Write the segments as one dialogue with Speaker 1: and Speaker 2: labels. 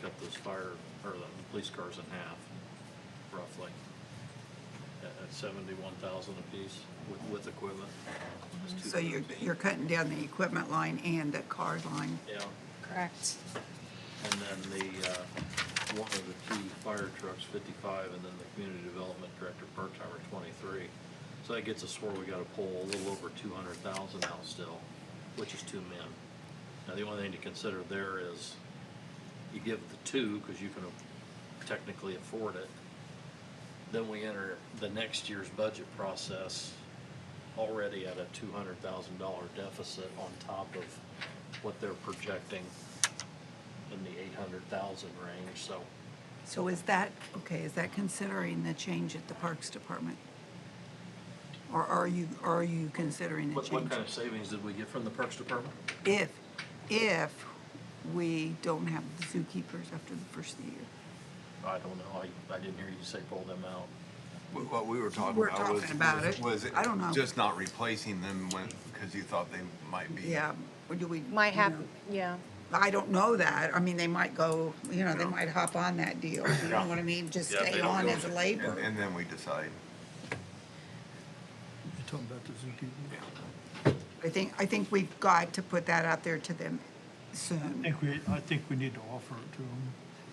Speaker 1: cut those fire, or the police cars in half, roughly, at, at seventy-one thousand apiece with, with equipment. It's
Speaker 2: So you're,
Speaker 1: two-thirds.
Speaker 2: you're cutting down the equipment line and the car line.
Speaker 1: Yeah,
Speaker 3: Correct.
Speaker 1: and then the, uh, one of the two fire trucks, fifty-five, and then the community development director part-timer, twenty-three. So that gets us where we gotta pull a little over two hundred thousand out still, which is two men. Now, the only thing to consider there is you give the two, cause you can technically afford it. Then we enter the next year's budget process already at a two hundred thousand dollar deficit on top of what they're projecting in the eight hundred thousand range, so
Speaker 2: So is that, okay, is that considering the change at the Parks Department? Or are you, are you considering the
Speaker 1: what, what
Speaker 2: change?
Speaker 1: kind of savings did we get from the Parks Department?
Speaker 2: If, if we don't have the zookeepers after the first of the year.
Speaker 1: I don't know, I, I didn't hear you say pull them out.
Speaker 4: What what we were talking
Speaker 2: We're
Speaker 4: about was,
Speaker 2: talking about
Speaker 4: was-
Speaker 2: it.
Speaker 4: was it
Speaker 2: I don't know.
Speaker 4: just not replacing them when, because you thought they might be?
Speaker 2: Yeah, or do we?
Speaker 3: Might
Speaker 2: you know,
Speaker 3: happen, yeah.
Speaker 2: I don't know that. I mean, they might go, you know, they might hop on that deal. You know
Speaker 4: Yeah.
Speaker 2: what I mean? Just
Speaker 1: Yeah, if they
Speaker 2: stay
Speaker 1: don't
Speaker 2: on
Speaker 1: go
Speaker 2: as
Speaker 1: with it.
Speaker 4: And,
Speaker 2: labor.
Speaker 4: and then we decide.
Speaker 5: You're talking about the zookeeper?
Speaker 2: I think, I think we've got to put that out there to them
Speaker 5: I
Speaker 2: soon.
Speaker 5: think we, I think we need to offer it to them.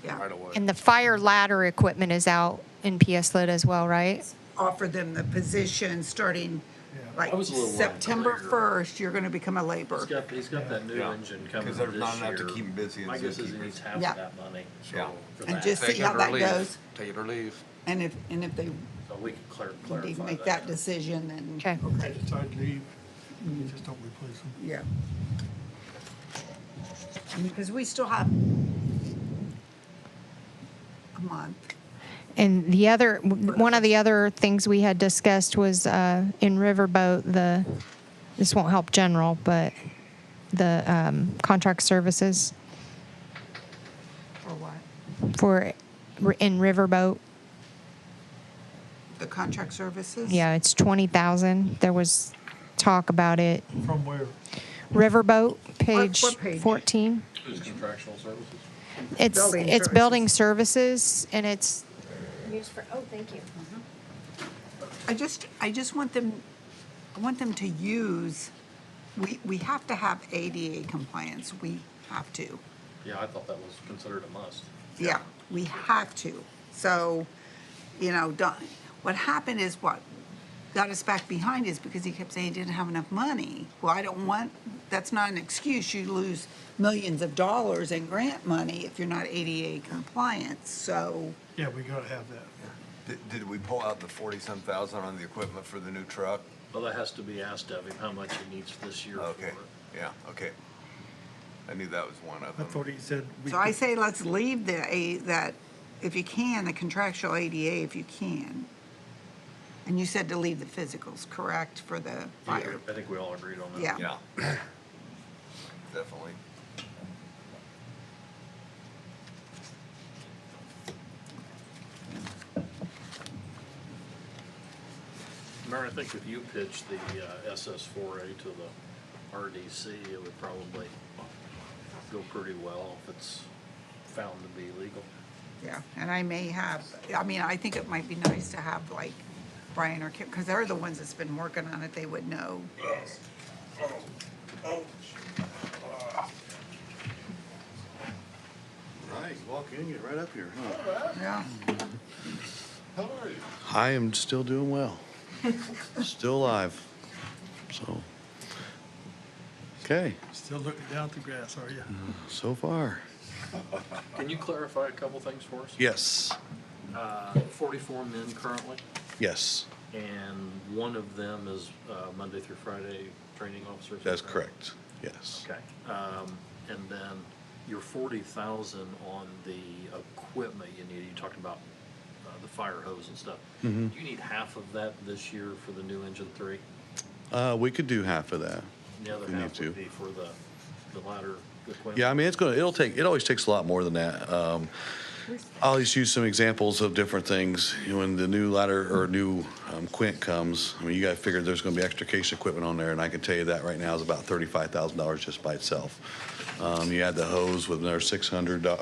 Speaker 2: Yeah,
Speaker 4: away.
Speaker 3: And the fire ladder equipment is out in PS Lit as well, right?
Speaker 2: offer them the position starting
Speaker 5: Yeah.
Speaker 2: like
Speaker 1: I was a little worried
Speaker 2: September
Speaker 1: earlier.
Speaker 2: first, you're gonna become a
Speaker 1: He's
Speaker 2: laborer.
Speaker 1: got, he's got that new
Speaker 4: Yeah.
Speaker 1: engine coming
Speaker 4: 'Cause
Speaker 1: this year.
Speaker 4: there's not enough to keep him busy in
Speaker 1: My guess is he
Speaker 4: zookeepers.
Speaker 1: needs half of
Speaker 2: Yeah.
Speaker 1: that money, so.
Speaker 4: Yeah.
Speaker 1: for
Speaker 2: And
Speaker 1: that.
Speaker 2: just see
Speaker 6: Take it
Speaker 2: how
Speaker 6: or
Speaker 2: that
Speaker 6: leave it.
Speaker 2: goes.
Speaker 6: Take it or leave.
Speaker 2: And if, and if they,
Speaker 1: So we can clar-
Speaker 2: they
Speaker 1: clarify
Speaker 2: make that
Speaker 1: that.
Speaker 2: decision, then.
Speaker 3: Okay.
Speaker 5: I just, I'd leave, You just don't replace them.
Speaker 2: Yeah. Because we still have a month.
Speaker 3: And the other, one of the other things we had discussed was uh, in Riverboat, the, this won't help general, but the um, contract services
Speaker 2: Or what?
Speaker 3: for, in Riverboat.
Speaker 2: The contract services?
Speaker 3: Yeah, it's 20,000. There was talk about it.
Speaker 5: From where?
Speaker 3: Riverboat, page
Speaker 2: what page?
Speaker 3: 14.
Speaker 1: Who's contractual services?
Speaker 3: It's,
Speaker 2: Building
Speaker 3: it's building services and it's. Used for, oh, thank you.
Speaker 2: I just, I just want them, I want them to use, we, we have to have ADA compliance, we have to.
Speaker 1: Yeah, I thought that was considered a must.
Speaker 2: Yeah, we have to. So, you know, don't, what happened is what got us back behind is because he kept saying he didn't have enough money. Well, I don't want, that's not an excuse. You lose millions of dollars in grant money if you're not ADA compliant. So,
Speaker 5: Yeah, we gotta have that.
Speaker 4: Did, did we pull out the forty-some thousand on the equipment for the new truck?
Speaker 1: Well, that has to be asked of him, how much he needs this year for
Speaker 4: Okay,
Speaker 1: it.
Speaker 4: yeah, okay. I knew that was one of
Speaker 5: I
Speaker 4: them.
Speaker 5: thought he said. we
Speaker 2: so I
Speaker 5: could-
Speaker 2: say let's leave the, A- that, if you can, the contractual ADA if you can. And you said to leave the physicals, correct, for the
Speaker 1: Yeah,
Speaker 2: fire?
Speaker 1: I think we all agreed on that.
Speaker 2: Yeah.
Speaker 4: Yeah. Definitely.
Speaker 1: Mayor, I think if you pitched the uh, SS4A to the RDC, it would probably go pretty well if it's found to be legal.
Speaker 2: Yeah, and I may have, I mean, I think it might be nice to have like Brian or Kim, because they're the ones that's been working on it, they would know.
Speaker 7: Right, you walk in, get right up here, huh?
Speaker 2: Yeah,
Speaker 7: How are you?
Speaker 8: I am still doing well. Still alive. So, okay,
Speaker 5: Still looking down at the grass, are you?
Speaker 8: so far.
Speaker 1: Can you clarify a couple things for us?
Speaker 8: Yes,
Speaker 1: Uh, 44 men currently,
Speaker 8: yes,
Speaker 1: and one of them is uh, Monday through Friday training officers?
Speaker 8: that's correct. Yes.
Speaker 1: Okay. Um, And then your 40,000 on the equipment you need, you talked about uh, the fire hose and stuff.
Speaker 8: Mm-hmm.
Speaker 1: Do you need half of that this year for the new engine three?
Speaker 8: Uh, we could do half of that.
Speaker 1: The other
Speaker 8: We need
Speaker 1: half
Speaker 8: to.
Speaker 1: would be for the, the ladder equipment?
Speaker 8: Yeah, I mean, it's gonna, it'll take, it always takes a lot more than that. Um, I'll just use some examples of different things. You know, When the new ladder or new um, Quint comes, I mean, you gotta figure there's gonna be extrication equipment on there, and I can tell you that right now is about thirty-five thousand dollars just by itself. Um, you add the hose with another six hundred